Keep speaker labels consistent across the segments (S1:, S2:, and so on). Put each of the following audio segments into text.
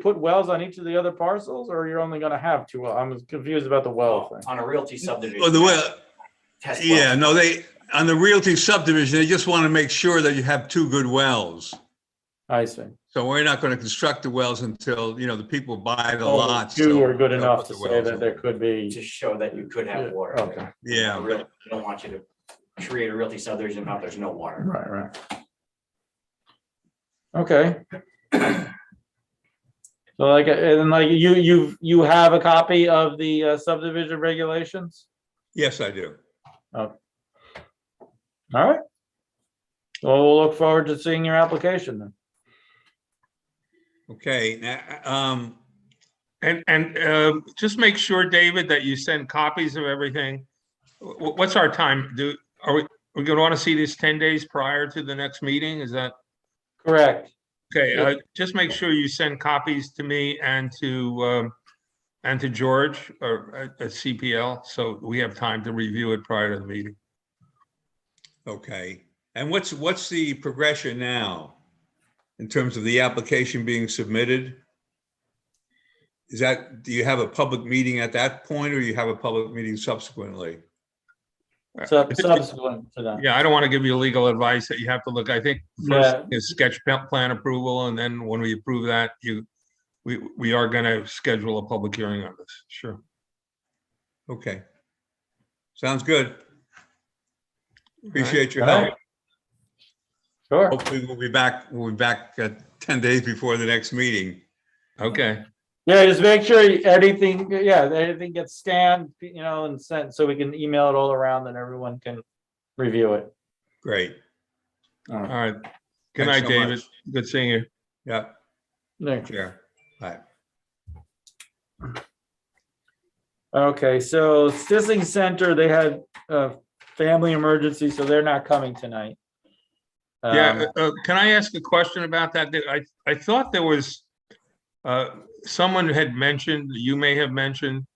S1: put wells on each of the other parcels, or you're only gonna have two? well- I'm confused about the well
S2: Well,
S1: thing.
S2: on a realty subdivision.
S3: Well, Oh, the well,
S2: test well.
S3: yeah, no, they, on the realty subdivision, they just want to make sure that you have two good wells.
S1: I see.
S3: So we're not going to construct the wells until, you know, the people buy the
S1: Only
S3: lots.
S1: Oh, Two
S3: so
S1: are good
S3: they'll
S1: enough
S3: put
S1: to
S3: the
S1: say
S3: wells
S1: that
S3: in.
S1: there could be.
S2: To show that you could
S1: Yeah,
S2: have water.
S1: Okay,
S3: Yeah,
S2: A real- I don't want you to create a realty subdivision if there's no water.
S1: right, right. Okay. So like, and like you, you, you have a copy of the uh, subdivision regulations?
S3: yes, I do.
S1: All right. Well, we'll look forward to seeing your application then.
S3: Okay, now, um,
S4: And, and um, just make sure, David, that you send copies of everything. Wh- wh- What's our time? Do, are we, we're going to want to see this 10 days prior to the next meeting? Is that,
S1: Correct.
S4: okay, uh, just make sure you send copies to me and to, um, and to George or at at CPL, so we have time to review it prior to the meeting.
S3: okay. And what's, what's the progression now? In terms of the application being submitted? Is that, do you have a public meeting at that point or you have a public meeting subsequently?
S1: Sub- Subsequent to that.
S4: Yeah, I don't want to give you legal advice that you have to look, I think first
S1: Yeah.
S4: is sketch pa- plan approval, and then when we approve that, you, we, we are going to schedule a public hearing on this, sure.
S3: Okay. Sounds good. Appreciate your
S1: All right.
S3: help.
S1: Sure.
S3: Hopefully we'll be back, we'll be back uh, 10 days before the next meeting.
S4: Okay,
S1: Yeah, just make sure anything, yeah, that everything gets scanned, you know, and sent, so we can email it all around and everyone can review it.
S3: Great.
S4: all right. Good
S3: Thanks
S4: night,
S3: so much.
S4: David. Good seeing you.
S3: Yeah,
S1: Yeah.
S3: sure. Bye.
S1: Okay, so Sissing Center, they had a family emergency, so they're not coming tonight.
S4: Yeah,
S1: Um,
S4: uh, uh, can I ask a question about that? There- I, I thought there was, uh, someone had mentioned, you may have mentioned,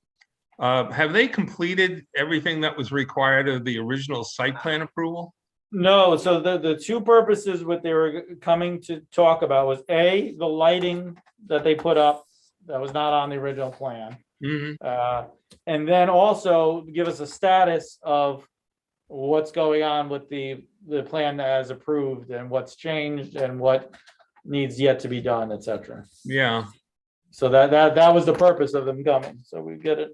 S4: uh, have they completed everything that was required of the original site plan approval?
S1: No, so the, the two purposes what they were coming to talk about was A, the lighting that they put up that was not on the original plan.
S4: Mm-hmm.
S1: Uh, And then also give us a status of what's going on with the, the plan as approved and what's changed and what needs yet to be done, et cetera.
S4: Yeah,
S1: So that, that, that was the purpose of them coming, so we get it.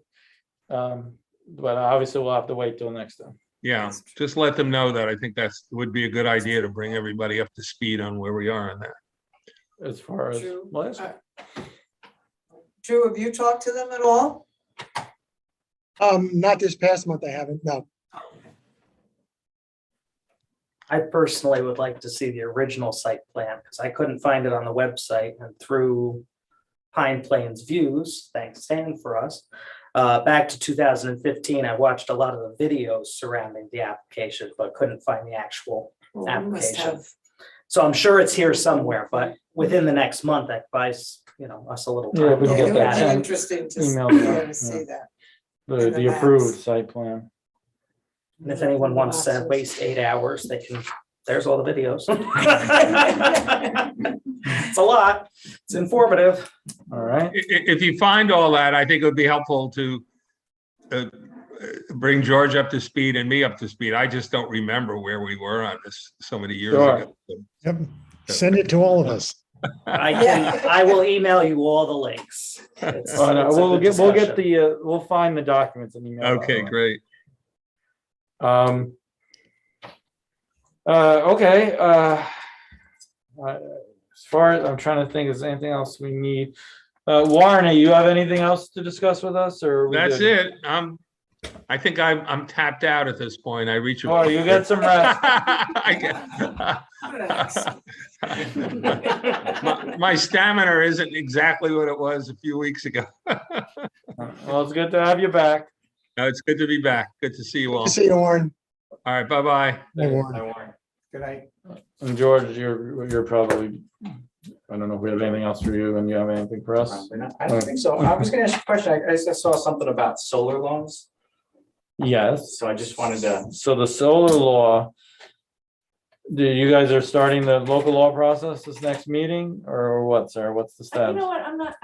S1: Um, But obviously we'll have to wait till next time.
S4: yeah. Just let them know that. I think that's, would be a good idea to bring everybody up to speed on where we are on that.
S1: as far as,
S5: True.
S1: well, that's-
S5: Drew, have you talked to them at all?
S6: Um, not this past month, I haven't, no.
S7: I personally would like to see the original site plan because I couldn't find it on the website and through Pine Plains Views, thanks Stan for us. Uh, back to two thousand and fifteen, I watched a lot of the videos surrounding the application, but couldn't find the actual.
S5: Well, we must
S7: Application.
S5: have.
S7: So I'm sure it's here somewhere, but within the next month, that buys, you know, us a little
S1: Yeah,
S7: time.
S1: we
S7: to
S1: can
S5: Yeah, It
S1: get
S7: look
S1: that sent.
S5: would be interesting
S7: at it.
S5: to
S1: Email
S5: s-
S1: that,
S5: to see that.
S1: the,
S5: And the
S1: the approved
S5: maps.
S1: site plan.
S7: And if anyone wants
S5: uh,
S7: to waste eight hours, they can, there's all the videos. It's a lot. It's informative.
S1: All right,
S4: I- i- if you find all that, I think it would be helpful to uh, bring George up to speed and me up to speed. I just don't remember where we were on this so many years ago.
S6: Yep. Send it to all of us.
S7: I can, I will email you all the links. It's-
S1: Oh, no,
S7: it's a
S1: we'll
S7: good
S1: get, we'll get
S7: discussion.
S1: the, uh, we'll find the documents and email. that
S4: Okay,
S1: around.
S4: great.
S1: Um. Uh, okay, uh. I- As far as, I'm trying to think, is there anything else we need? Uh, Warren, you have anything else to discuss with us or? are we
S4: That's
S1: good?
S4: it. Um, I think I'm, I'm tapped out at this point. I reach. a-
S1: Oh, you got some rest.
S4: I get- My my stamina isn't exactly what it was a few weeks ago.
S1: Uh, Well, it's good to have you back.
S4: No, It's good to be back. Good to see you all.
S6: See you, Warren.
S4: All right, bye-bye.
S6: Hey, Warren.
S2: I warn. Good night.
S1: And George, you're, you're probably, I don't know if we have anything else for you and you have anything for us?
S2: Probably not. I don't think so. I was gonna ask you a question. I, I just saw something about solar loans,
S1: Yes.
S2: so I just wanted to.
S1: So the solar law. Do you guys are starting the local law process this next meeting or what, sir? What's the
S8: Uh,
S1: status?
S8: You know what, I'm not,